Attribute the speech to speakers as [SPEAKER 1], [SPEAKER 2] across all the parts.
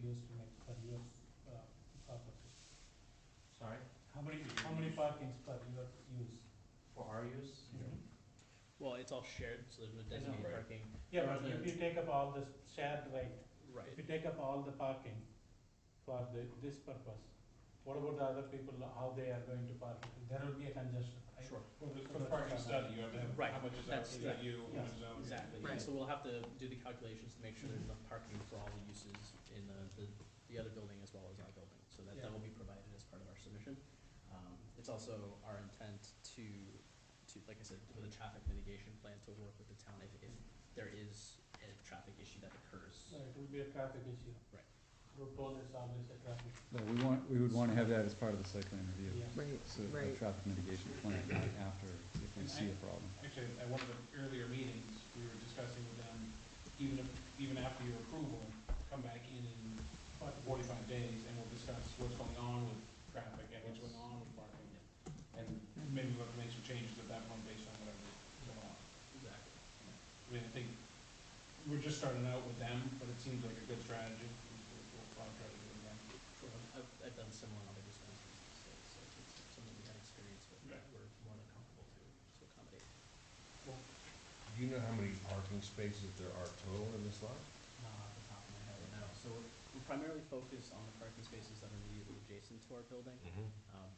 [SPEAKER 1] uh, parking spot you have used?
[SPEAKER 2] For our use?
[SPEAKER 3] Well, it's all shared, so there's no
[SPEAKER 1] I know.
[SPEAKER 3] designated parking.
[SPEAKER 1] Yeah, but if you take up all this shared right, if
[SPEAKER 3] Right.
[SPEAKER 1] you take up all the parking for the, this purpose, what about the other people, how they are going to park? There will be a congestion, right?
[SPEAKER 3] Sure.
[SPEAKER 1] For the-
[SPEAKER 4] For the parking study, you have to have,
[SPEAKER 3] Right,
[SPEAKER 4] how much is
[SPEAKER 3] that's-
[SPEAKER 4] allocated to you, how much is
[SPEAKER 1] yeah,
[SPEAKER 4] allocated.
[SPEAKER 3] Exactly.
[SPEAKER 5] Right.
[SPEAKER 3] So we'll have to do the calculations to make sure there's enough parking for all the uses in the, the, the other building as well as our building. So that, that will be provided as part of our submission. Um, it's also our intent to, to, like I said, with a traffic mitigation plan to work with the town if, if there is a traffic issue that occurs.
[SPEAKER 1] So it will be a traffic issue.
[SPEAKER 3] Right.
[SPEAKER 1] Road toll is always a traffic,
[SPEAKER 6] But we want, we would wanna have that as part of the site plan review.
[SPEAKER 1] yeah.
[SPEAKER 5] Right,
[SPEAKER 6] So the
[SPEAKER 5] right.
[SPEAKER 6] traffic mitigation plan, not after, if we see a problem.
[SPEAKER 4] Actually, at one of the earlier meetings, we were discussing with them, even if, even after your approval, come back in in about forty-five days and we'll discuss what's going on with traffic and what's going on with parking. And maybe we'll have to make some changes at that point based on whatever's going on.
[SPEAKER 3] Exactly.
[SPEAKER 4] I mean, I think, we're just starting out with them, but it seems like a good strategy. We'll- We'll probably try to do it again.
[SPEAKER 3] Sure. Um, I've, I've done similar on other dispensaries, so, so it's something we had experience with, that we're more than comfortable to, to accommodate.
[SPEAKER 7] Do you know how many parking spaces there are total in this lot?
[SPEAKER 3] Not off the top of my head, no. So we're, we're primarily focused on the parking spaces that are immediately adjacent to our building.
[SPEAKER 7] Mm-hmm.
[SPEAKER 3] Um,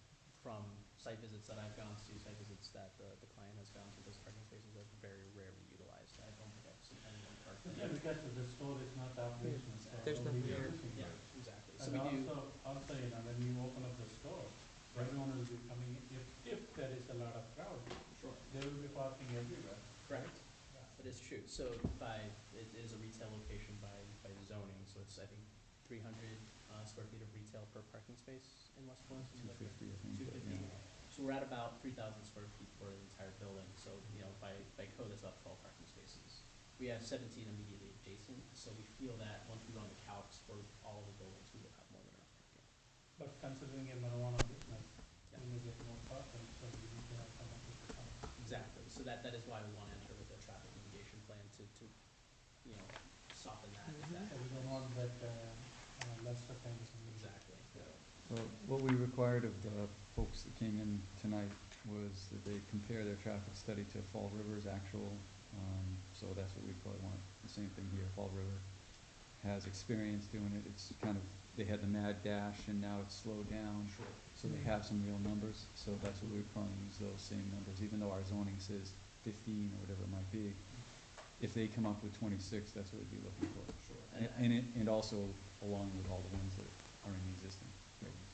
[SPEAKER 3] From site visits that I've gone to, site visits that the, the client has gone to, those parking spaces are very rarely utilized. I don't think I've seen anyone park
[SPEAKER 1] Yeah,
[SPEAKER 3] there.
[SPEAKER 1] because the store is not operational, so.
[SPEAKER 5] There's
[SPEAKER 1] nobody
[SPEAKER 5] nothing there.
[SPEAKER 1] is using it.
[SPEAKER 3] Yeah, exactly.
[SPEAKER 1] And
[SPEAKER 3] So we do,
[SPEAKER 1] also, also, you know, when you open up the store, everyone will be coming, in. if, if there is a lot of crowd,
[SPEAKER 3] sure,
[SPEAKER 1] they will be parking everywhere.
[SPEAKER 3] correct? That is true. So by, it is a retail location by, by zoning, so it's, I think, three hundred, uh, square feet of retail per parking space in West Boylston. is
[SPEAKER 6] Two
[SPEAKER 3] that correct?
[SPEAKER 6] fifty, I think.
[SPEAKER 3] two
[SPEAKER 6] but,
[SPEAKER 3] fifty.
[SPEAKER 6] yeah.
[SPEAKER 3] So we're at about three thousand square feet for the entire building, so, you know, by, by code, that's about twelve parking spaces. We have seventeen immediately adjacent, so we feel that once we run the calcs for all the buildings, we will have more than enough parking.
[SPEAKER 1] But considering a marijuana business,
[SPEAKER 3] Yeah.
[SPEAKER 1] we may get more parking, so we need to have some of it to come.
[SPEAKER 3] Exactly, so that, that is why we wanna enter with a traffic mitigation plan to, to, you know, soften that, if that.
[SPEAKER 1] So we don't want that, uh, uh, lesser kind of thing.
[SPEAKER 3] Exactly,
[SPEAKER 6] Well, what we required of the folks that came in tonight was that they compare their traffic study to Fall River's actual, um, so that's what we probably want, the same thing here, Fall River has experience doing it, it's kind of, they had the mad dash and now it's slowed down,
[SPEAKER 3] sure.
[SPEAKER 6] so they have some real numbers, so that's what we would probably use those same numbers, even though our zoning says fifteen or whatever it might be. If they come up with twenty-six, that's what we'd be looking for.
[SPEAKER 3] Sure.
[SPEAKER 6] And, and it, and also along with all the ones that are in the existing buildings.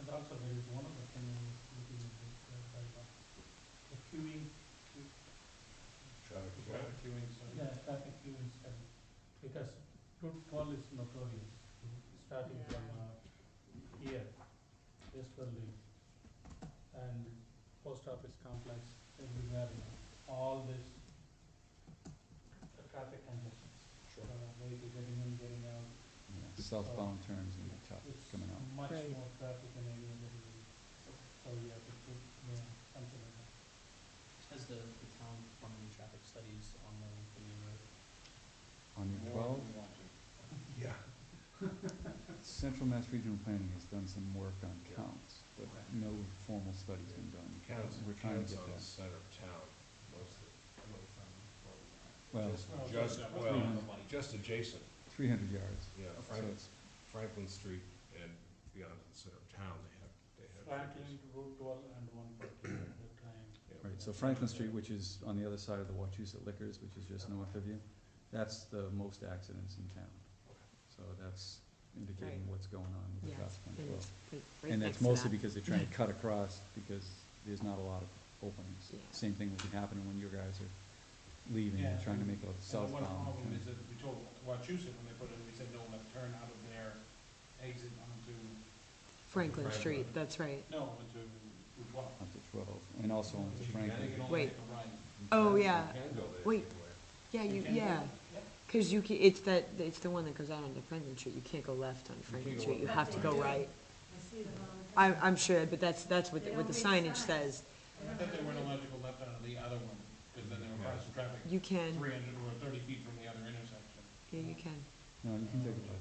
[SPEAKER 1] And also there is one other thing in this meeting, is uh, the, bylaw. the queuing,
[SPEAKER 7] Traffic.
[SPEAKER 4] Traffic queuing, so.
[SPEAKER 1] yeah, traffic queuing study. Because Route twelve is notorious, starting from, uh, here, Westerly, and post office complex, everywhere, you know, all this uh, traffic congestion. Uh,
[SPEAKER 3] Sure.
[SPEAKER 1] Way to getting in, getting out,
[SPEAKER 6] Yeah, Southbound turns and the tough
[SPEAKER 1] it's
[SPEAKER 6] coming out.
[SPEAKER 1] much
[SPEAKER 5] Right.
[SPEAKER 1] more traffic than any other area. So we have to put, you know, something like that.
[SPEAKER 3] Has the, the town performed any traffic studies on the, the main road?
[SPEAKER 6] On Route
[SPEAKER 4] More
[SPEAKER 6] twelve,
[SPEAKER 4] than we want to.
[SPEAKER 7] Yeah.
[SPEAKER 6] Central Mass Regional Planning has done some work on counts, but
[SPEAKER 3] Okay.
[SPEAKER 6] no formal study's been done.
[SPEAKER 7] Counts,
[SPEAKER 6] We're trying to
[SPEAKER 7] counts
[SPEAKER 6] get
[SPEAKER 7] on the
[SPEAKER 6] that.
[SPEAKER 7] center of town mostly.
[SPEAKER 6] Well,
[SPEAKER 7] Just-
[SPEAKER 1] Well,
[SPEAKER 7] Just,
[SPEAKER 4] that's-
[SPEAKER 7] well, just adjacent,
[SPEAKER 6] three hundred yards.
[SPEAKER 7] yeah,
[SPEAKER 6] So
[SPEAKER 7] Franklin,
[SPEAKER 6] it's-
[SPEAKER 7] Franklin Street and beyond the center of town, they have, they have.
[SPEAKER 1] Franklin, Route twelve and one forty at the time.
[SPEAKER 7] Yeah.
[SPEAKER 6] Right, so Franklin Street, which is on the other side of the Wachusett Liquors, which is just north of you, that's the most accidents in town. So that's indicating
[SPEAKER 5] Right.
[SPEAKER 6] what's going on with the traffic
[SPEAKER 5] Yes,
[SPEAKER 6] on
[SPEAKER 5] and it's
[SPEAKER 6] twelve.
[SPEAKER 5] like right
[SPEAKER 6] And
[SPEAKER 5] next
[SPEAKER 6] that's
[SPEAKER 5] to
[SPEAKER 6] mostly
[SPEAKER 5] that.
[SPEAKER 6] because they're trying to cut across, because there's not a lot of openings.
[SPEAKER 5] Yeah.
[SPEAKER 6] Same thing would be happening when you guys are leaving,
[SPEAKER 4] Yeah.
[SPEAKER 6] trying to make a
[SPEAKER 4] And the one
[SPEAKER 6] southbound.
[SPEAKER 4] problem
[SPEAKER 6] turn.
[SPEAKER 4] is that we told Wachusett when they put it, in, we said no left turn out of their exit onto,
[SPEAKER 5] Franklin
[SPEAKER 7] Franklin.
[SPEAKER 5] Street, that's right.
[SPEAKER 4] no, onto Route twelve.
[SPEAKER 6] Up to twelve, and also on
[SPEAKER 4] You
[SPEAKER 6] to
[SPEAKER 4] can
[SPEAKER 6] Franklin.
[SPEAKER 4] only
[SPEAKER 5] Wait.
[SPEAKER 4] take a right.
[SPEAKER 5] Oh,
[SPEAKER 7] You
[SPEAKER 5] yeah,
[SPEAKER 7] can go there
[SPEAKER 5] Wait.
[SPEAKER 7] anyway.
[SPEAKER 5] yeah, you,
[SPEAKER 4] You can go-
[SPEAKER 5] yeah,
[SPEAKER 4] yeah.
[SPEAKER 5] because you, ca- it's that, it's the one that goes out onto Franklin Street, you can't go left on Franklin
[SPEAKER 7] go
[SPEAKER 5] Street, you
[SPEAKER 7] left.
[SPEAKER 5] have to go
[SPEAKER 8] I
[SPEAKER 5] right.
[SPEAKER 8] see them all the
[SPEAKER 5] I,
[SPEAKER 8] time.
[SPEAKER 5] I'm sure, but that's, that's what, the- what the signage says,
[SPEAKER 4] I thought they weren't allowed to go left out of the other one, because then they were crossing traffic
[SPEAKER 5] you can,
[SPEAKER 4] three hundred or thirty feet from the other intersection.
[SPEAKER 5] yeah, you can.
[SPEAKER 6] No, you can take a look.